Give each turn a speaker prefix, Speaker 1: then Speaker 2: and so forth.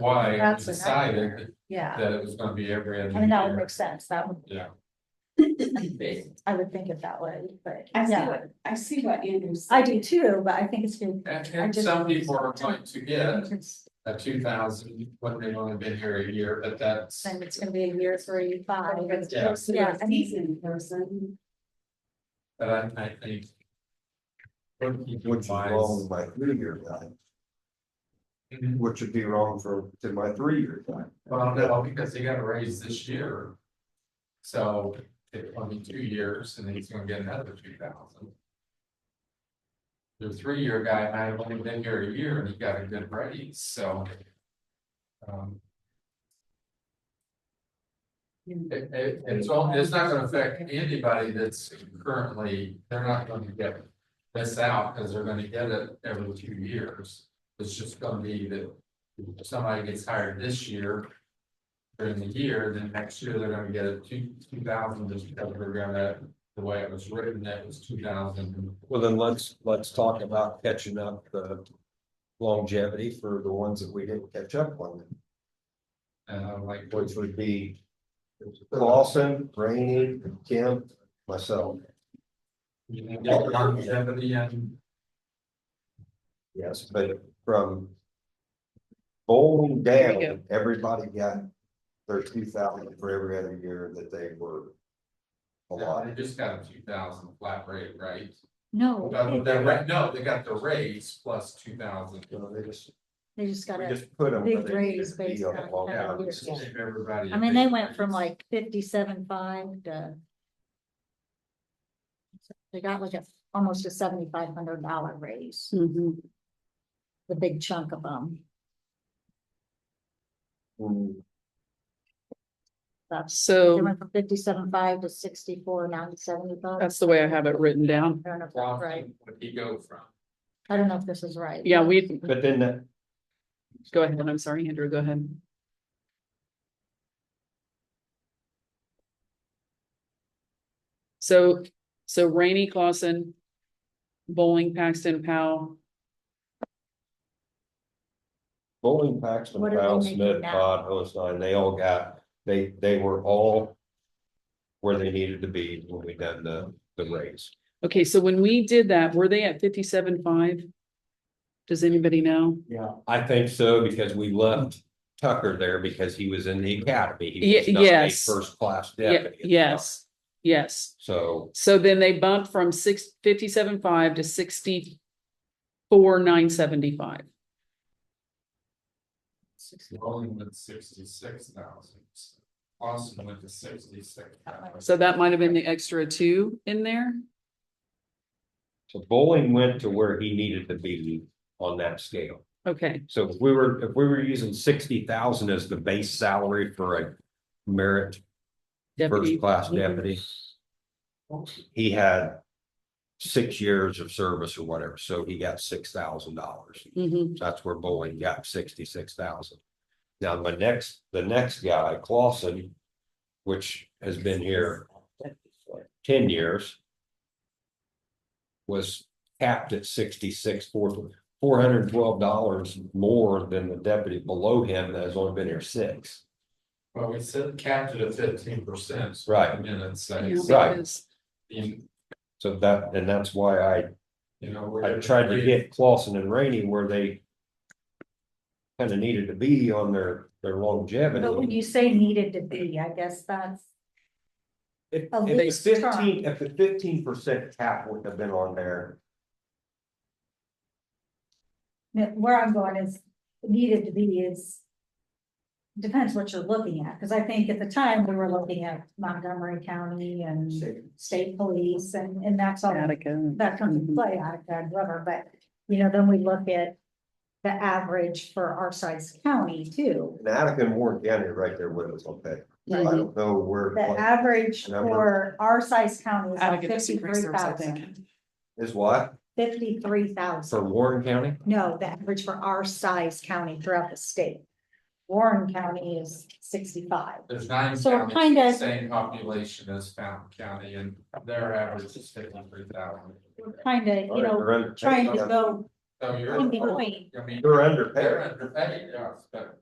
Speaker 1: why we
Speaker 2: That's a
Speaker 1: decided
Speaker 2: nightmare. Yeah,
Speaker 1: that it was gonna be every
Speaker 2: I
Speaker 1: other
Speaker 2: mean, that would make
Speaker 1: year.
Speaker 2: sense, that would,
Speaker 1: Yeah,
Speaker 2: I would think it that way, but
Speaker 3: I see
Speaker 2: yeah,
Speaker 3: what, I see what Andrew's.
Speaker 2: I do too, but I think it's been.
Speaker 1: and,
Speaker 2: I
Speaker 1: and
Speaker 2: just-
Speaker 1: some people are going to
Speaker 2: I
Speaker 1: get
Speaker 2: think it's-
Speaker 1: a two thousand when they've only been here a year, but that's.
Speaker 2: And it's gonna be a year three, five.
Speaker 1: Yeah.
Speaker 2: Yeah, I mean-
Speaker 3: Season person.
Speaker 1: But I, I think. Would
Speaker 4: Which is wrong with my three year time, which would be wrong for, to my three year time.
Speaker 1: Well, no, because he got a raise this year. So, it only two years, and then he's gonna get another two thousand. The three-year guy might have only been here a year and he got a good raise, so. Um, it, it, it's all, it's not gonna affect anybody that's currently, they're not gonna get this out, cause they're gonna get it every two years. It's just gonna be that if somebody gets hired this year. During the year, then next year they're gonna get a two, two thousand, just because we're gonna, the way it was written, that was two thousand.
Speaker 5: Well, then let's, let's talk about catching up the longevity for the ones that we didn't catch up on,
Speaker 1: And I'm like,
Speaker 5: which would be Lawson, Rainey, Kemp, myself,
Speaker 1: you know, y'all got longevity and
Speaker 5: yes, but from bowling down, everybody got their two thousand for every other year that they were
Speaker 1: they
Speaker 5: allotted.
Speaker 1: just got a two thousand flat rate, right?
Speaker 2: No,
Speaker 1: But they're right, no, they got the raise plus two thousand.
Speaker 5: You know, they just,
Speaker 2: they just
Speaker 5: we
Speaker 2: gotta,
Speaker 5: just put them.
Speaker 2: Big
Speaker 5: where they
Speaker 2: raise
Speaker 5: should be
Speaker 2: based
Speaker 5: on
Speaker 2: on
Speaker 5: long
Speaker 2: how many
Speaker 5: term.
Speaker 2: years.
Speaker 1: Give everybody. a
Speaker 2: I mean, they
Speaker 1: big
Speaker 2: went from
Speaker 1: raise.
Speaker 2: like fifty-seven five to. They got like a, almost a seventy-five hundred dollar raise, the big chunk of them,
Speaker 5: Hmm.
Speaker 2: that's. They
Speaker 6: So
Speaker 2: went from fifty-seven five to sixty-four, now to seventy-five.
Speaker 6: that's the way I have it written down.
Speaker 2: I don't know if that's right.
Speaker 1: Lawson, What'd he go from?
Speaker 2: I don't know if this is right.
Speaker 6: Yeah, we,
Speaker 5: But then that,
Speaker 6: go ahead. I'm sorry, Andrew, go ahead. So, so Rainey Clausen, Bowling, Paxton, Powell,
Speaker 5: Bowling, Paxton,
Speaker 2: What are they
Speaker 5: Powell,
Speaker 2: making
Speaker 5: Smith,
Speaker 2: now?
Speaker 5: Todd, Hosenline, they all got, they, they were all. Where they needed to be when we done the, the raise.
Speaker 6: okay, so when we did that, were they at fifty-seven five? Does anybody know?
Speaker 5: Yeah. I think so, because we left Tucker there because he was in the academy. He
Speaker 6: Ye-
Speaker 5: was not a
Speaker 6: yes.
Speaker 5: First class
Speaker 6: Yeah,
Speaker 5: deputy. at the
Speaker 6: yes, yes.
Speaker 5: time. So,
Speaker 6: So then they bumped from six, fifty-seven five to sixty-four, nine seventy-five.
Speaker 1: Rolling with sixty-six thousand. Lawson went to sixty-six.
Speaker 6: So that might have been the extra two in there.
Speaker 5: so Bowling went to where he needed to be on that scale.
Speaker 6: Okay,
Speaker 5: So if we were, if we were using sixty thousand as the base salary for a merit
Speaker 6: deputy.
Speaker 5: first class
Speaker 6: Mhm.
Speaker 5: deputy. He had six years of service or whatever, so he got six thousand dollars.
Speaker 6: Mhm.
Speaker 5: That's where Boeing got sixty-six thousand. Now, my next, the next guy, Clausen, which has been here ten years. Was capped at sixty-six, four, four hundred and twelve dollars more than the deputy below him that has only been here six.
Speaker 1: Well, we said capped it at fifteen percent.
Speaker 5: Right.
Speaker 1: Minutes, so,
Speaker 6: Yeah,
Speaker 1: it's-
Speaker 5: Right.
Speaker 6: because-
Speaker 1: you
Speaker 5: So that, and that's why I
Speaker 1: you know. we're
Speaker 5: I
Speaker 1: gonna
Speaker 5: tried to
Speaker 1: read-
Speaker 5: get Clausen and Rainey where they. Kind of needed to be on their, their longevity.
Speaker 2: But when you say needed to be, I guess that's,
Speaker 5: If,
Speaker 2: a
Speaker 5: if
Speaker 2: lease
Speaker 5: the
Speaker 2: term.
Speaker 5: fifteen, if the fifteen percent cap would have been on there,
Speaker 2: where I'm going is needed to be is. Depends what you're looking at, because I think at the time we were looking at Montgomery County and state police and, and that's all.
Speaker 6: Attica.
Speaker 2: that comes into play, I, I'd rather, but, you know, then we look at the average for our size county too.
Speaker 5: and Attica and Warren County are right there with us on that. I
Speaker 2: Mm-hmm.
Speaker 6: Mhm.
Speaker 5: don't know where
Speaker 2: The average
Speaker 5: Number.
Speaker 2: for our size county is
Speaker 6: Attica just
Speaker 2: fifty-three
Speaker 6: increased theirs, I
Speaker 2: thousand,
Speaker 6: think.
Speaker 5: is what
Speaker 2: fifty-three thousand.
Speaker 5: for Warren County.
Speaker 2: No, the average for our size county throughout the state. Warren County is sixty-five.
Speaker 1: There's nine
Speaker 2: So we're
Speaker 1: counties,
Speaker 2: kinda-
Speaker 1: the same population as Fountain County, and their average is fifty-three thousand.
Speaker 2: We're kind of, you know,
Speaker 5: They're under-
Speaker 2: trying to go
Speaker 1: So you're.
Speaker 2: in between.
Speaker 1: I mean,
Speaker 5: They're
Speaker 1: they're
Speaker 5: underpaid.
Speaker 1: underpaid, yes, but